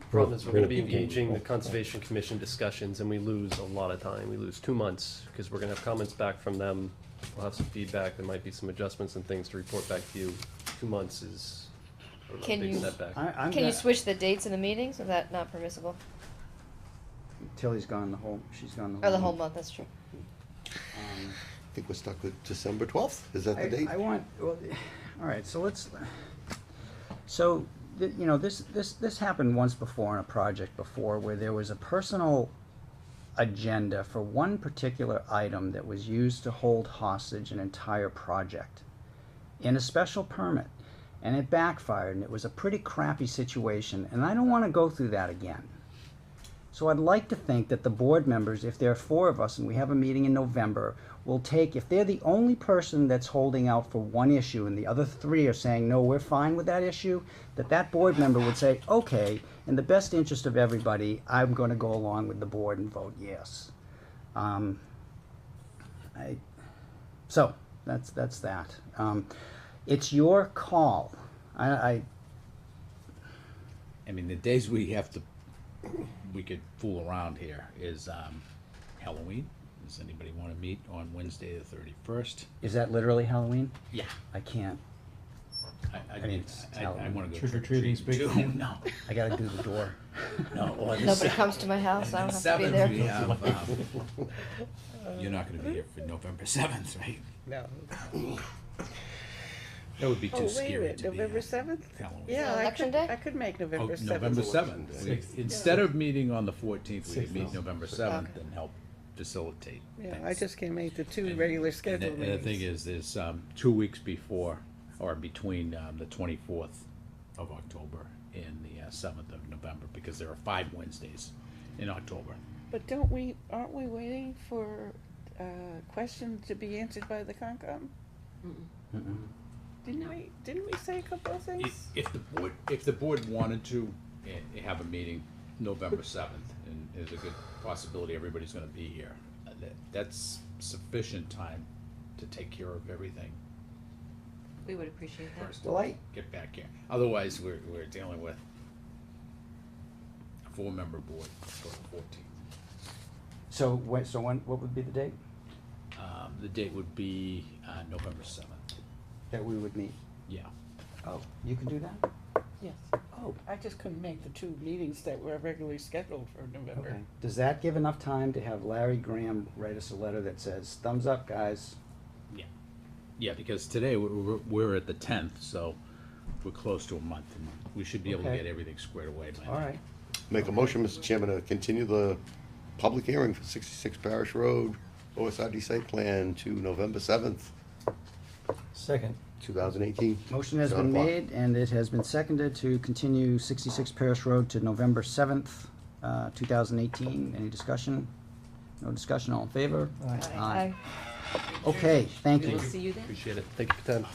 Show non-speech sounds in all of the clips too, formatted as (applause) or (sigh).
problem is we're gonna be Really? engaging the Conservation Commission discussions and we lose a lot of time. We lose two months, because we're gonna have comments back from them. We'll have some feedback, there might be some adjustments and things to report back to you. Two months is I don't know, a Can big you- setback. I, I'm Can you gonna- switch the dates of the meetings? Is that not permissible? Tilly's gone the whole, she's gone the whole. Or Oh, the whole month, that's true. Um, I think we're stuck with December twelfth, is that the I, date? I want, well, (sighs) all right, so let's, so, th- you know, this, this, this happened once before on a project before where there was a personal agenda for one particular item that was used to hold hostage an entire project in a special permit. And it backfired and it was a pretty crappy situation and I don't want to go through that again. So I'd like to think that the board members, if there are four of us and we have a meeting in November, will take, if they're the only person that's holding out for one issue and the other three are saying, no, we're fine with that issue, that that board member would say, okay, in the best interest of everybody, I'm gonna go along with the board and vote yes. Um, I, so, that's, that's that. Um, it's your call. I, I, I mean, the days we have to, we could fool around here is um, Halloween. Does anybody want to meet on Wednesday the thirty-first? is that literally Halloween? Yeah. I can't. I, I, mean, mean, it's I, I Halloween. want to go Trick or trick or treating. treating's big. too. No, I gotta do the door. (laughs) no. or the Nobody se- comes to my house, I and don't the have to be 7th we there. have, um, You're not going to be here for November seventh, right? No. That would be Oh, too wait a scary minute, to be uh, November here. seventh? Halloween. Yeah, I Election could, day? I could make Oh, November seventh. November seventh. Sixth. Instead of meeting on the fourteenth, we could Sixth. meet November seventh Okay. and help facilitate Yeah, I things. just can't make the two And- regular And the, scheduled and meetings. the thing is, there's, um, two weeks before, or between, um, the twenty-fourth of October and the uh, seventh of November, because there are five Wednesdays in October. But don't we, aren't we waiting for a question to be answered by the Concom? Didn't we, didn't we say a couple of If, things? if the board, if the board wanted to, eh, have a meeting November seventh, and there's a good possibility everybody's gonna be here, uh, that, that's sufficient time to take care of everything We would appreciate first. Well, I, get back here. Otherwise, we're, we're dealing with a four-member board for the fourteenth. So when, so when, what would be the date Um, the date would be, uh, November seventh. that we would meet? Yeah. Oh, you can do that? Yes. Oh, I just couldn't make the two meetings that were regularly scheduled for November. okay. Does that give enough time to have Larry Graham write us a letter that says, thumbs up, guys? Yeah. Yeah, because today we're, we're, we're at the tenth, so we're close to a month. and We should be able to Okay. get everything squared away by then. All right. Make a motion, Mr. Chairman, to continue the public hearing for sixty-six Parish Road, OSRD site plan to November seventh, Second. two thousand eighteen. Motion has been made and it has been seconded to continue sixty-six Paris Road to November seventh, uh, two thousand eighteen. Any discussion? No discussion, all in favor? Aye. Aye. Okay, thank you. We'll see you then. Appreciate it, thank you for your time.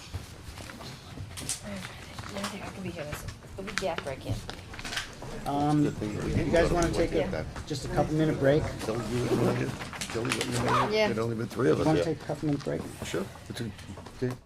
Yeah, I think I can be here, this- it'll be gap break in. Um, you guys wanna take Yeah. a, just a couple minute break? Tell you what you wanna do. Tell me what you wanna do. Yeah. There'd only been three of us Wanna here. take a couple minute break? Sure. It's a- okay.